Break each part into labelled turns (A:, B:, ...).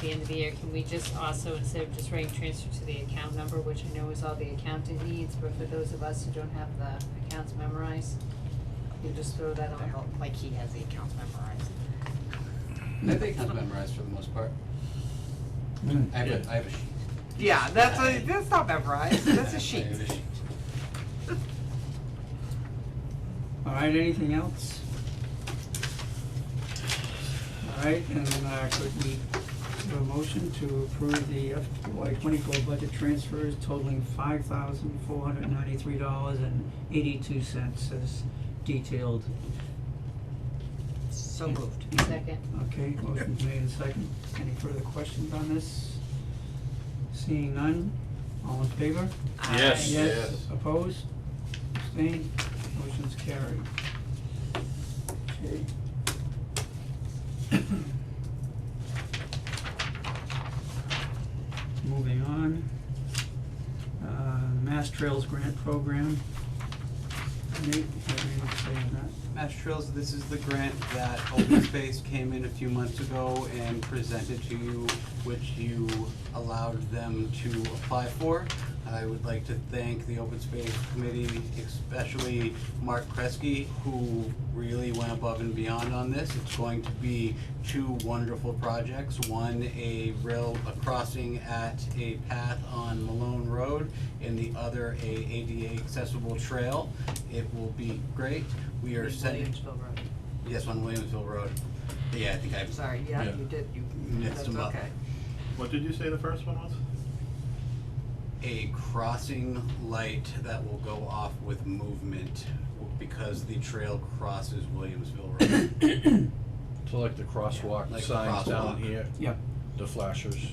A: the end of the year, can we just also, instead of just writing transfer to the account number, which I know is all the accountant needs, but for those of us who don't have the accounts memorized, you just throw that
B: I
A: on?
B: don't, like he has the accounts memorized.
C: I think it's memorized for the most part. I have a, I have a sheet.
B: Yeah, that's a, that's not memorized, that's a sheet.
C: I have a sheet.
D: Alright, anything else? Alright, and uh could we have a motion to approve the FY twenty-four budget transfers totaling five thousand four hundred ninety-three dollars and eighty-two cents as detailed.
B: So moved.
A: Second,
D: Okay, motion made and second. Any further questions on this? Seeing none, all in favor?
E: Yes.
D: Yes, opposed, abstained, motion's carried. Okay. Moving on. Uh, Mass Trails Grant Program. Nate, have anything to say on that?
F: Mass Trails, this is the grant that Open Space came in a few months ago and presented to you, which you allowed them to apply for. I would like to thank the Open Space Committee, especially Mark Kresge, who really went above and beyond on this. It's going to be two wonderful projects, one a rail, a crossing at a path on Malone Road, and the other a ADA accessible trail. It will be great. We are sending,
B: Williamsville Road.
F: yes, on Williamsville Road. Yeah, I think I,
B: Sorry, yeah,
E: Yeah.
B: you did, you,
F: Mixed
B: that's
F: them up.
B: okay.
E: What did you say the first one was?
F: a crossing light that will go off with movement because the trail crosses Williamsville Road.
G: So like the crosswalk
F: Like
G: signs down
F: crosswalk.
G: here,
D: Yeah,
G: the flashers.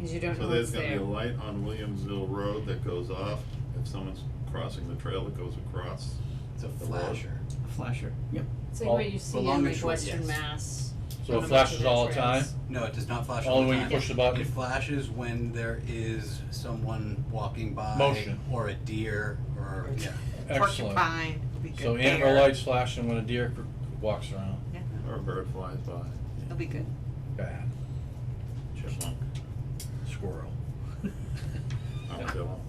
A: cause you don't know
E: So
A: what's
E: there's
A: there.
E: gonna be a light on Williamsville Road that goes off, if someone's crossing the trail that goes across.
F: It's a
E: The road.
F: flasher.
D: flasher, yep.
A: It's like what you see
F: Along
A: in
F: the
A: like
F: shore,
A: Western
F: yes.
A: Mass.
G: So
A: on
G: it
A: the
G: flashes all the
A: trails.
G: time?
F: No, it does not flash all
G: Only
F: the
G: when you
F: time.
G: push the button?
F: It flashes when there is someone walking by.
G: Motion.
F: Or a deer, or,
B: Or-
F: yeah.
G: Excellent.
B: Porcupine, we could
G: So
B: bear,
G: amber lights flashing when a deer cr- walks around.
E: Or a bird flies by,
B: It'll be good.
G: Bad.
E: chipmunk,
G: Squirrel.
E: armadillo.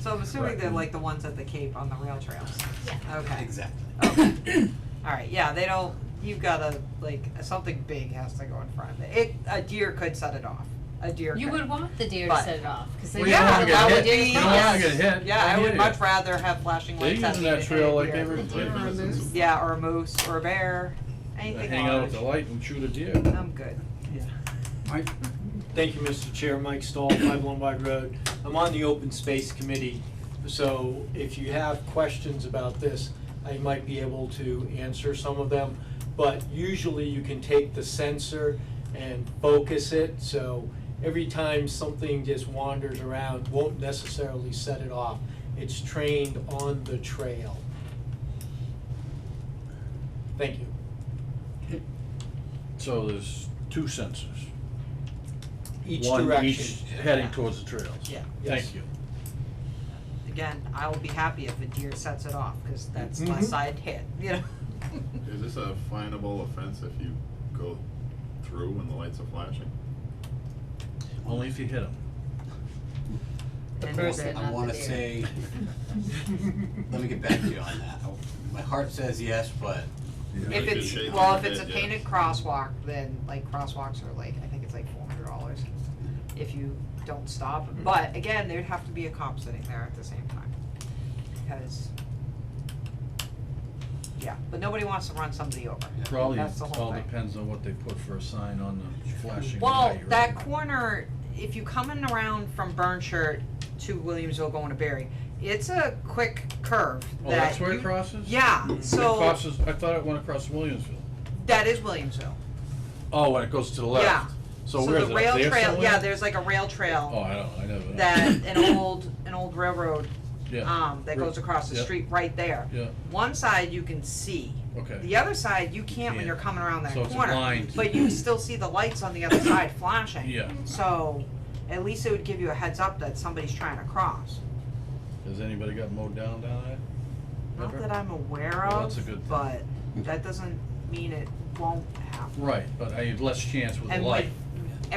B: So I'm assuming
G: Right.
B: they're like the ones at the Cape on the rail trails. Yeah. Okay.
F: Exactly.
B: Okay. Alright, yeah, they don't, you've gotta, like, something big has to go in front of it. It, a deer could set it off. A deer
A: You
B: could.
A: would want the deer to
B: But-
A: set it off, cause then
B: Well,
A: you
B: yeah,
A: have to allow
B: that
A: the
B: would
A: deer
B: be-
A: to
G: don't wanna
A: cross.
G: get hit.
B: Yeah, I
G: Don't
B: would
G: hit
B: much
G: it.
B: rather have flashing
G: They're
B: lights at
G: using
B: me
G: that
B: than
G: trail
B: a
G: like
B: deer.
G: every day.
B: Yeah, or a moose or a bear, anything
G: Hang out with the
B: large.
G: light and shoot a deer.
B: I'm good.
D: Mike?
H: Thank you, Mr. Chair. Mike Stahl, Five Lombard Road. I'm on the Open Space Committee, so if you have questions about this, I might be able to answer some of them. But usually you can take the sensor and focus it, so every time something just wanders around, won't necessarily set it off. It's trained on the trail. Thank you.
G: So there's two sensors.
H: Each
G: One
H: direction.
G: each heading towards the trails.
B: Yeah.
H: Yes.
G: Thank you.
B: Again, I will be happy if a deer sets it off, cause that's
G: Mm-hmm.
B: my
H: Mhm.
B: side hit, you know?
E: Is this a finable offense if you go through when the lights are flashing?
G: Only if you hit them.
A: The
B: And
A: person,
B: then-
F: I
A: not the
F: wanna
A: deer.
F: say, let me get back to you on that. I- My heart says yes, but
B: If
E: Like you're shaking
B: it's, well,
E: your
B: if it's a
E: head, yeah.
B: painted crosswalk, then like crosswalks are like, I think it's like four hundred dollars if you don't stop.
E: Mm-hmm.
B: But again, there'd have to be a cop sitting there at the same time, because, yeah, but nobody wants to run somebody over.
G: Probably,
B: That's the whole
G: all
B: thing.
G: depends on what they put for a sign on the flashing
B: Well,
G: light, right?
B: that corner, if you coming around from Burnshirt to Williamsville going to Berry, it's a quick curve that
G: Oh, that's where
B: you-
G: it crosses?
B: Yeah,
G: It
B: so,
G: crosses, I thought it went across Williamsville.
B: that is Williamsville,
G: Oh, when it goes to the
B: yeah.
G: left. So where is it,
B: the
G: up
B: rail
G: there
B: trail, yeah,
G: somewhere?
B: there's like a rail
G: Oh,
B: trail
G: I don't, I never know.
B: that, an old, an old railroad,
G: Yeah,
B: um, that goes across the
G: Yeah.
B: street right there.
G: yeah,
B: One side you can see,
G: okay.
B: the other side you can't when
G: can't.
B: you're coming around that
G: So it's
B: corner,
G: blind.
B: but you can still see the lights on the other side flashing.
G: Yeah.
B: So, at least it would give you a heads up that somebody's trying to cross,
G: Has anybody got mowed down down there?
B: not
G: Ever?
B: that I'm aware
G: Well, that's a good
B: of,
G: thing.
B: but that doesn't mean it won't happen.
G: Right, but I have less chance with the light.
B: And